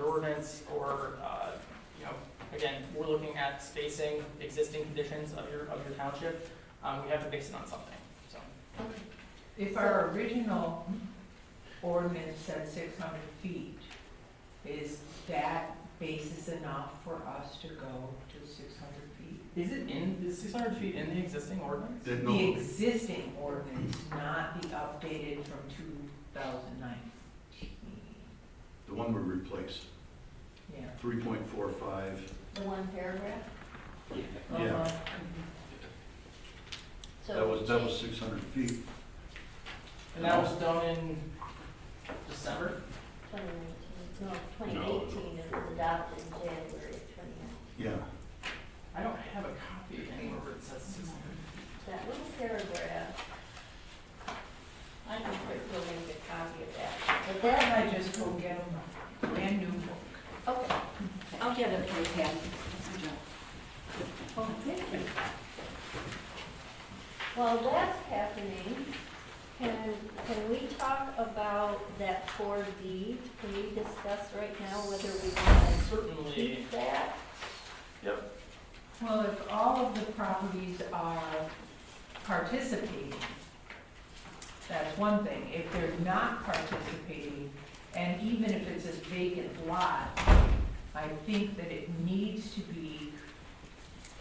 improvements or, uh, you know, again, we're looking at spacing, the existing conditions of your, of your township. Um, We have to base it on something, so. If our original ordinance said six hundred feet, is that basis enough for us to go to six hundred feet? Is it in, is 600 feet in the existing ordinance? Did no, The existing ordinance, not the updated from two thousand nineteen, the one we replaced, yeah. three point four five, The one paragraph? yeah, Uh-huh. So that was, that change- was six hundred feet. And that was done in December? 2019, no, 2018, it was adopted in January of 2019. Yeah, I don't have a copy anywhere where it says 600. That little paragraph, I think we're going to make a copy of that. But that, I just go get a brand new book. okay, I'll get it for you, Patty. oh, thank you. While that's happening, can, can we talk about that 4D? Can we discuss right now whether we want to Certainly, keep that? Well, if all of the properties are participating, that's one thing. If they're not participating, and even if it's a vacant lot, I think that it needs to be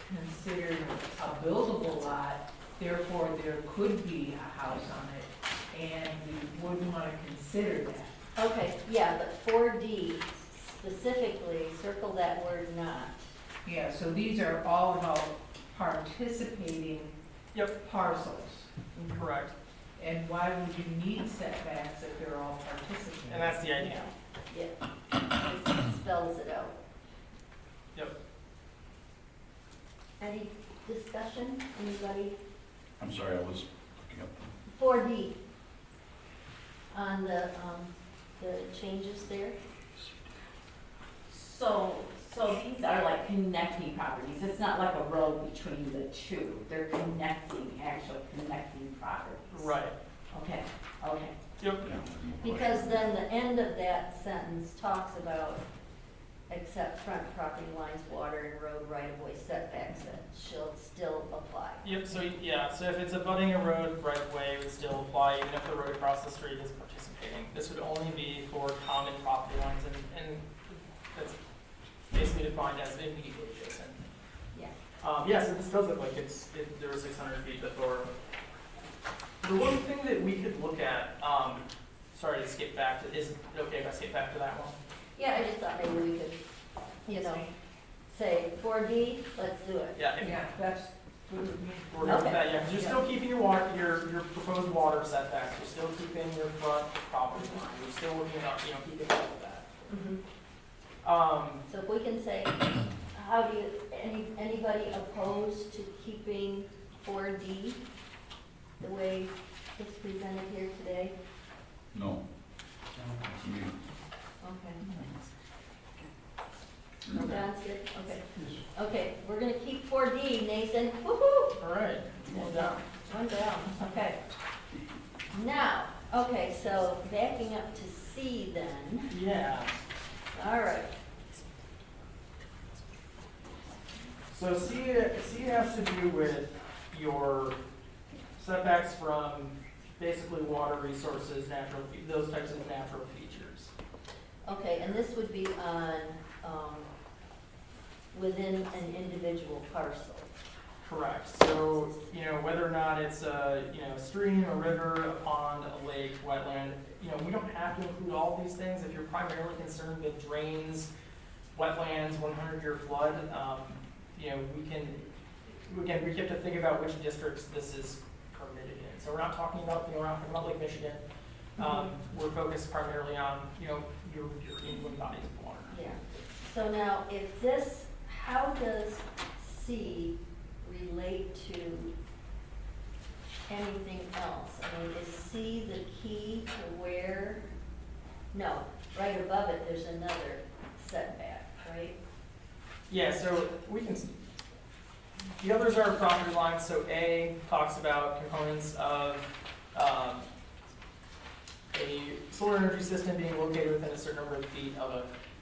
considered a buildable lot, therefore there could be a house on it, and we would want to consider that. Okay, yeah, but 4D specifically, circle that word not. Yeah, so these are all about participating parcels. correct. And why would you need setbacks if they're all participating? And that's the idea. Yeah, it spells it out. Yep. Any discussion, anybody? I'm sorry, I was looking up. Four D. On the, um, the changes there? So, so these are like connecting properties, it's not like a road between the two, they're connecting, actual connecting properties. Right. Okay, okay. Yep. yeah, no question. Because then the end of that sentence talks about, except front property lines, water and road right-of-way setbacks that shall still apply. Yep, so, yeah, so if it's abutting a road right of way, it would still apply, even if the road across the street is participating. This would only be for common property lines, and, and that's basically defined as immediately adjacent. Yeah. Um, yeah, so this does look like it's, it, there was six hundred feet before. The one thing that we could look at, um, sorry to skip back to, is it okay if I skip back to that one? Yeah, I just thought maybe we could, you know, say four D, let's do it. Yeah, if Yeah, that's, We're good with Okay. that, yeah, 'cause you're still keeping your water, your, your proposed water setbacks, you're still keeping your front property line, you're still looking up, you know, keeping all of that. Mm-hmm. Um, So if we can say, how do you, any, anybody opposed to keeping four D the way it's presented here today? No. I mean, Okay. Sounds good, okay. Okay, we're gonna keep four D, Nathan, woo-hoo, all right, one down. one down, okay. Now, okay, so backing up to C then, Yeah, all right. so C, C has to do with your setbacks from basically water resources, natural, fe- those types of natural features. Okay, and this would be on, um, within an individual parcel. Correct, so, you know, whether or not it's a, you know, stream, a river, a pond, a lake, wetland, you know, we don't have to include all of these things, if you're primarily concerned with drains, wetlands, one hundred year flood, um, you know, we can, again, we have to think about which districts this is permitted in, so we're not talking about, you know, we're not talking about Lake Michigan. Um, we're focused primarily on, you know, your, your inland bodies of water. Yeah. So now, if this, how does C relate to anything else? I mean, is C the key to where, no, right above it, there's another setback, right? Yeah, so we can, the others are property lines, so A talks about components of, um, a solar energy system being located within a certain number of feet of a